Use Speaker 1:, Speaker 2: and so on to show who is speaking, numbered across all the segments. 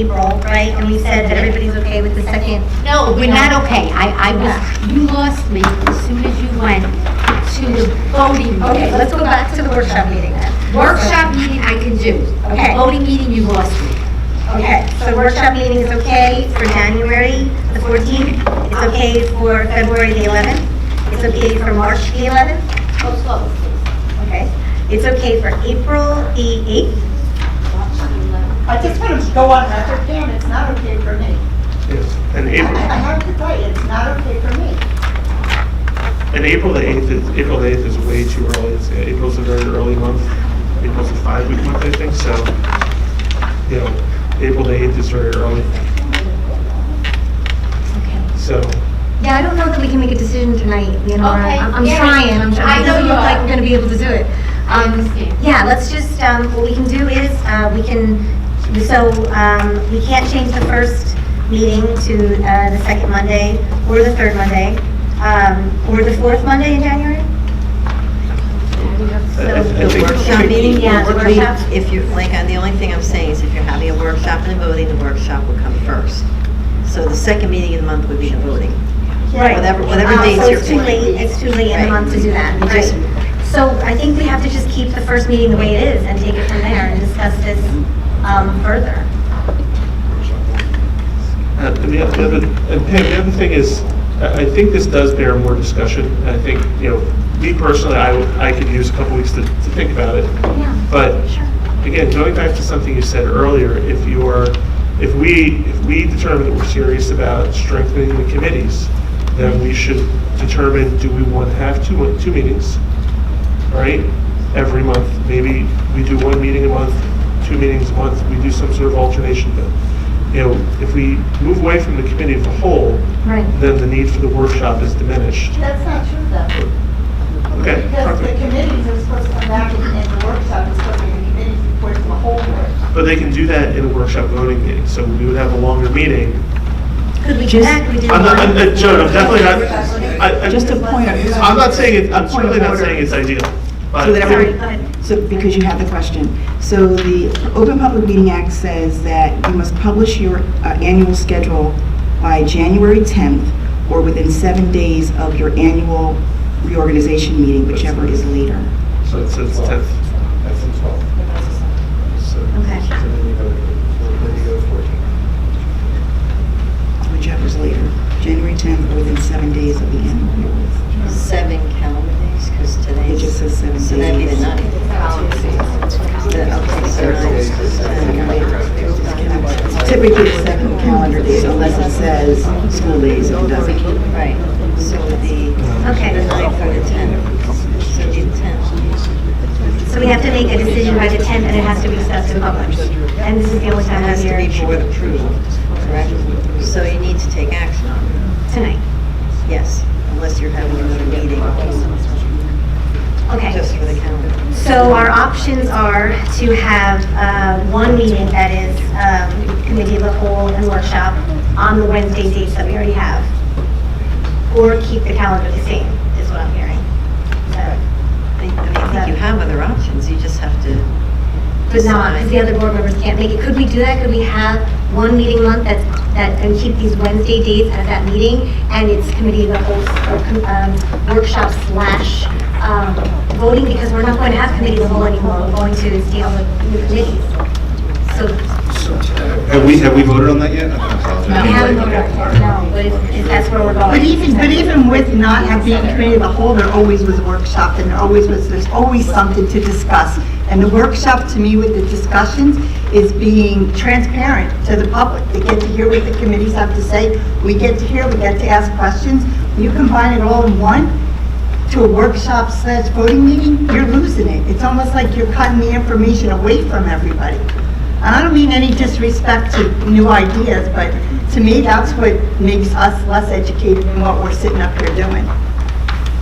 Speaker 1: April, right? And we said that everybody's okay with the second.
Speaker 2: No,
Speaker 1: We're not okay. I, I was,
Speaker 2: okay. You lost me as soon as you went to the voting.
Speaker 1: okay, let's go back to the workshop meeting then.
Speaker 2: Workshop meeting I can do.
Speaker 1: Okay.
Speaker 2: Voting meeting, you lost me.
Speaker 1: Okay, so workshop meeting is okay for January the 14th. It's okay for February the 11th. It's okay for March the 11th. Okay. It's okay for April the 8th.
Speaker 3: I just want to go on record, Pam, it's not okay for me.
Speaker 4: Yes, and
Speaker 3: I I
Speaker 4: April,
Speaker 3: have to tell you, it's not okay for me.
Speaker 4: and April the 8th is, April the 8th is way too early. It's, yeah, April's a very early month. April's a five-week month, I think, so, you know, April the 8th is very early. So,
Speaker 1: Yeah, I don't know that we can make a decision tonight, Leonora.
Speaker 2: Okay,
Speaker 1: I'm I'm
Speaker 2: yeah.
Speaker 1: trying, I'm trying.
Speaker 2: I know
Speaker 1: It doesn't
Speaker 2: you
Speaker 1: look like
Speaker 2: are.
Speaker 1: we're gonna be able to do it.
Speaker 2: I
Speaker 1: Um,
Speaker 2: understand.
Speaker 1: Yeah, let's just, um, what we can do is, uh, we can, so, um, we can't change the first meeting to, uh, the second Monday or the third Monday, um, or the fourth Monday in January?
Speaker 4: I- I I
Speaker 5: The
Speaker 4: think.
Speaker 5: workshop meeting,
Speaker 1: Yeah, the
Speaker 5: the workshop,
Speaker 1: workshop.
Speaker 5: if you, like, uh, the only thing I'm saying is if you're having a workshop and a voting, the workshop will come first. So the second meeting of the month would be the voting. Whatever- whatever
Speaker 1: Uh,
Speaker 5: dates you're
Speaker 1: So it's too
Speaker 5: playing.
Speaker 1: late, it's too late in the
Speaker 5: Right.
Speaker 1: month to do that,
Speaker 5: You
Speaker 1: right?
Speaker 5: just-
Speaker 1: So I think we have to just keep the first meeting the way it is and take it from there and discuss this, um, further.
Speaker 4: Uh, And the other, the other- and Pam, the other thing is, I I think this does bear more discussion. and I think, you know, me personally, I, would- I could use a couple weeks to, to think about it. But again, going back to something you said earlier, if you are, if we, if we determine that we're serious about strengthening the committees, then we should determine, do we want to have two, two meetings, right? Every month, maybe we do one meeting a month, two meetings a month, we do some sort of alternation, but, you know, if we move away from the committee of the whole,
Speaker 1: Right.
Speaker 4: then the need for the workshop is diminished.
Speaker 3: That's not true though.
Speaker 4: Okay?
Speaker 3: Because the committees are supposed to come back and and the workshop is supposed to be the committees report to the whole board.
Speaker 4: But they can do that in a workshop voting meeting, so we would have a longer meeting.
Speaker 1: Could we do that? Could we do
Speaker 4: I'm not, I'm, uh,
Speaker 1: one?
Speaker 4: Joan, I'm definitely not, I, I.
Speaker 6: Just a point of.
Speaker 4: I'm not saying, it. I'm
Speaker 6: Point of
Speaker 4: certainly not
Speaker 6: order.
Speaker 4: saying it's ideal, but.
Speaker 6: So that
Speaker 1: Sorry,
Speaker 6: everyone-
Speaker 1: go ahead.
Speaker 6: So, because you have the question. So the Open Public Meeting Act says that you must publish your uh, annual schedule by January 10th or within seven days of your annual reorganization meeting, whichever is later.
Speaker 4: So it's, it's tenth.
Speaker 7: That's in 12.
Speaker 4: So-
Speaker 1: Okay.
Speaker 7: So then you go, then you go to 14.
Speaker 6: Whichever's later. January 10th or within seven days of the annual.
Speaker 5: Seven calendar days, because
Speaker 6: It
Speaker 5: today's,
Speaker 6: just says seven days.
Speaker 5: so that'd be the ninth. So that- Okay, so ninth, seven, eight,
Speaker 6: Typically, it's seven calendar days unless it says school days, it doesn't.
Speaker 5: Right, so the, the
Speaker 1: Okay,
Speaker 5: ninth or the tenth, so the tenth.
Speaker 1: so we have to make a decision by the 10th, and it has to be set to publish. And this is the only time
Speaker 5: Has
Speaker 1: of
Speaker 5: to be
Speaker 1: year,
Speaker 5: board approval, correct? So you need to take action on it.
Speaker 1: tonight.
Speaker 5: Yes, unless you're having another meeting
Speaker 1: Okay.
Speaker 5: just for the calendar.
Speaker 1: So our options are to have uh, one meeting that is um, committee of the whole and workshop on the Wednesday dates that we already have, or keep the calendar the same, is what I'm hearing. So,
Speaker 5: I mean, I think you have other options, you just have to,
Speaker 1: But not, because the other board members can't make it. Could we do that? Could we have one meeting a month that's, that, and keep these Wednesday dates at that meeting? And it's committee of the whole, or um, workshop slash um, voting, because we're not going to have committee of the whole anymore. We're going to deal with new committees. So
Speaker 7: Have we, have we voted on that yet? I apologize.
Speaker 1: We haven't voted on it, no, but if- if that's where we're
Speaker 3: But
Speaker 1: going.
Speaker 3: even, but even with not having being committee of the whole, there always was a workshop, and there always was, there's always something to discuss. And the workshop, to me, with the discussions, is being transparent to the public. They get to hear what the committees have to say, we get to hear, we get to ask questions. You combine it all in one to a workshop slash voting meeting, you're losing it. It's almost like you're cutting the information away from everybody. And I don't mean any disrespect to new ideas, but to me, that's what makes us less educated in what we're sitting up here doing.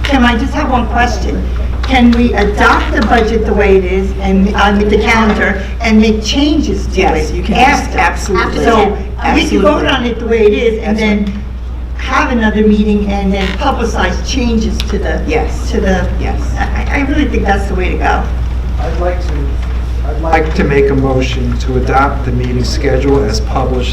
Speaker 3: Kim, I just have one question. Can we adopt the budget the way it is and, on the calendar and make changes to it?
Speaker 6: Yes, you can,
Speaker 3: after?
Speaker 6: absolutely.
Speaker 3: So we can vote
Speaker 6: Absolutely.
Speaker 3: on it the way it is and then have another meeting and then publicize changes to the.
Speaker 6: Yes.
Speaker 3: To the.
Speaker 6: Yes.
Speaker 3: I, I really think that's the way to go.
Speaker 8: I'd like to
Speaker 4: I'd like to make a motion to adopt the meeting schedule as published